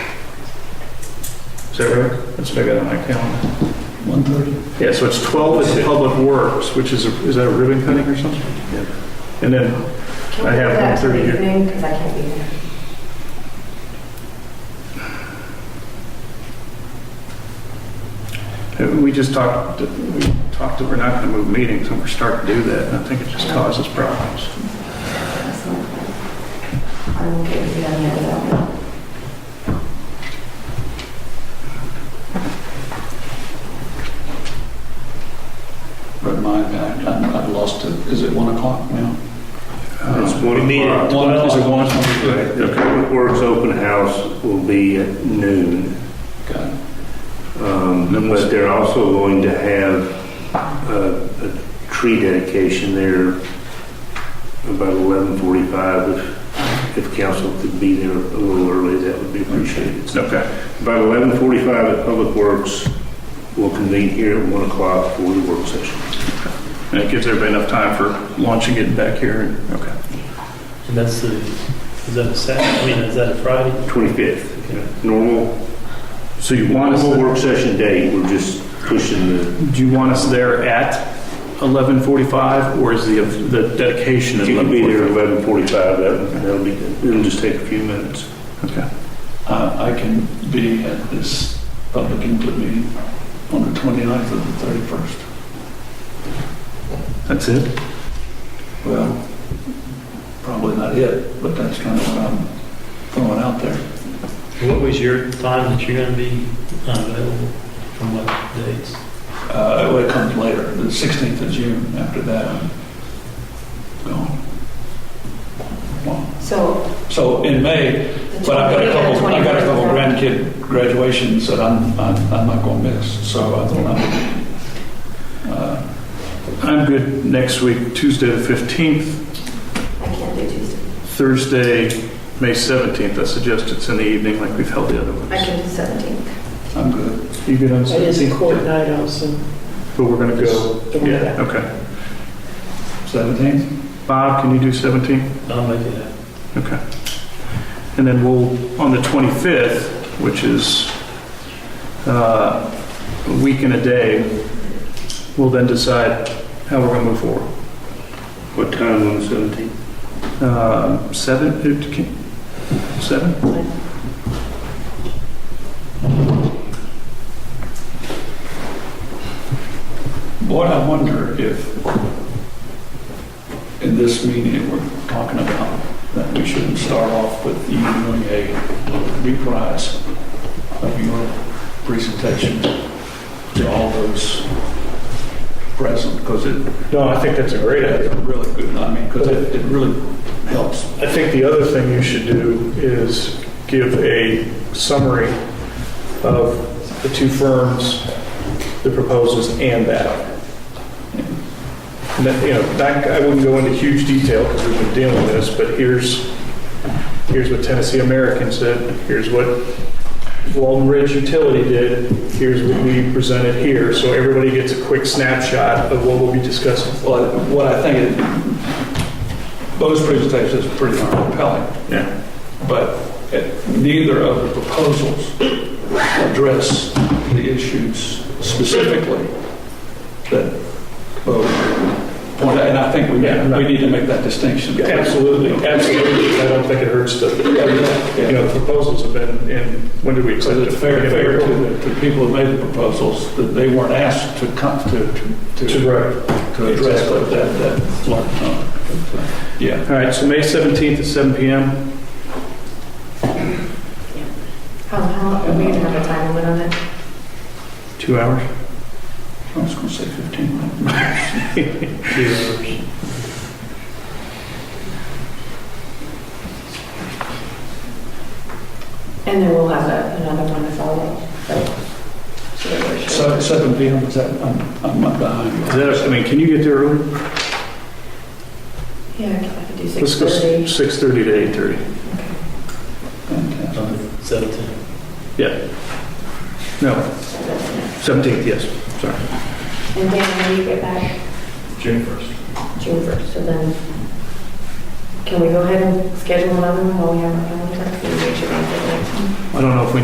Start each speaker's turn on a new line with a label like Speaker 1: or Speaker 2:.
Speaker 1: that right? That's what I got on my calendar.
Speaker 2: 1:30.
Speaker 1: Yeah, so it's 12 at Public Works, which is, a- is that a ribbon cutting or something?
Speaker 2: Yeah.
Speaker 1: And then
Speaker 3: Can
Speaker 1: I
Speaker 3: we
Speaker 1: have
Speaker 3: do that
Speaker 1: 1:30 here.
Speaker 3: evening? Because I can't be there.
Speaker 1: Uh, We just talked, we talked that we're not going to move meetings, and we're starting to do that, and I think it just causes problems.
Speaker 3: That's not fun. I will get with you on the other one.
Speaker 2: But my, I- I've lost it. Is it 1 o'clock now?
Speaker 4: It's
Speaker 1: Uh,
Speaker 4: one
Speaker 5: meet
Speaker 4: o'clock.
Speaker 5: at
Speaker 2: One- is it one?
Speaker 1: Right.
Speaker 4: The Public Works Open House will be at noon.
Speaker 2: Got it.
Speaker 4: um,
Speaker 1: Then we'll-
Speaker 4: But they're also going to have uh, a tree dedication there about 11:45. If- If council could be there a little early, that would be appreciated.
Speaker 1: Okay,
Speaker 4: About 11:45 at Public Works, we'll convene here at 1 o'clock for the work session.
Speaker 1: and it gives everybody enough time for launching it back here, and, okay.
Speaker 5: And that's the, is that a Saturday, I mean, is that a Friday?
Speaker 4: 25th, normal,
Speaker 1: So you want us,
Speaker 4: normal work session day, we're just pushing the
Speaker 1: do you want us there at 11:45, or is the, the dedication at
Speaker 4: If you can
Speaker 1: 11:45?
Speaker 4: be there at eleven forty-five, that, that'll be, good. it'll just take a few minutes.
Speaker 1: Okay,
Speaker 2: Uh, I I can be at this public input meeting on the 29th or the 31st.
Speaker 1: that's it?
Speaker 2: Well, probably not it, but that's kind of what I'm throwing out there.
Speaker 5: What was your time that you're gonna be unavailable from what dates?
Speaker 2: Uh, well, It comes later, the 16th of June, after that, I'm gone. Well,
Speaker 3: So.
Speaker 2: So in May,
Speaker 3: the
Speaker 2: but I've got a
Speaker 3: 20th and
Speaker 2: couple, I've got a
Speaker 3: 21st.
Speaker 2: couple grandkid graduations that I'm, I'm I'm not going to miss, so I don't know. Uh,
Speaker 1: I'm good next week, Tuesday the 15th,
Speaker 3: I can't do Tuesday.
Speaker 1: Thursday, May 17th, I suggest it's in the evening like we've held the other
Speaker 3: I
Speaker 1: ones.
Speaker 3: can do 17th.
Speaker 2: I'm good.
Speaker 1: You good on
Speaker 6: It is a court
Speaker 1: 17th?
Speaker 6: night also.
Speaker 1: But we're going to go,
Speaker 6: Just throwing it
Speaker 1: yeah,
Speaker 6: out.
Speaker 1: okay.
Speaker 2: 17th?
Speaker 1: Bob, can you do 17th?
Speaker 5: I'll make it happen.
Speaker 1: Okay. And then we'll, on the 25th, which is uh, a week and a day, we'll then decide how we're going to move forward.
Speaker 4: What time on the seventeenth?
Speaker 2: Uh,
Speaker 1: Um, Seven, it can- seven?
Speaker 2: Boy, I wonder if in this meeting we're talking about that we shouldn't start off with you doing a reprise of your presentation to all those present, because it
Speaker 1: No, I think that's a great
Speaker 2: it really good, I mean, because it it really helps.
Speaker 1: I think the other thing you should do is give a summary of the two firms, the proposals, and that. And that, you know, that, I wouldn't go into huge detail because we've been dealing with this, but here's, here's what Tennessee American said, here's what Walden Ridge Utility did, here's what we presented here, so everybody gets a quick snapshot of what we'll be discussing.
Speaker 2: Well, what I think, it- those presentations are pretty darn compelling.
Speaker 1: Yeah.
Speaker 2: but it- neither of the proposals address the issues specifically that Bo pointed out, and I think we, we need to make that distinction.
Speaker 1: Absolutely, absolutely. I don't think it hurts to,
Speaker 2: Yeah, yeah,
Speaker 1: you
Speaker 2: yeah.
Speaker 1: know, proposals have been, and when did we accept
Speaker 2: Because
Speaker 1: it?
Speaker 2: it's fair,
Speaker 1: In
Speaker 2: fair to
Speaker 1: April?
Speaker 2: the, to the people who made the proposals, that they weren't asked to come, to,
Speaker 1: To
Speaker 2: to, to
Speaker 1: right.
Speaker 2: to address that, that, that, yeah.
Speaker 1: All right, so May 17th at seven PM.
Speaker 3: How, how, are we gonna have a time limit on it?
Speaker 1: Two hours?
Speaker 2: I was gonna say 15 minutes.
Speaker 1: Two hours.
Speaker 3: And then we'll have a- another one to follow.
Speaker 2: So 7 PM, is that, I'm, I'm not behind you.
Speaker 1: Is that, I mean, can you get there early?
Speaker 3: Yeah, I can- I can do
Speaker 1: Let's go
Speaker 3: 6:30.
Speaker 1: 6:30 to 8:30.
Speaker 2: Fantastic.
Speaker 5: Seventeen.
Speaker 1: No, 17th, yes, sorry.
Speaker 3: And then when you get back?
Speaker 1: June 1st.
Speaker 3: June 1st, so then, can we go ahead and schedule another one while we have our calendar? Can we make sure we get that?
Speaker 1: I don't know if we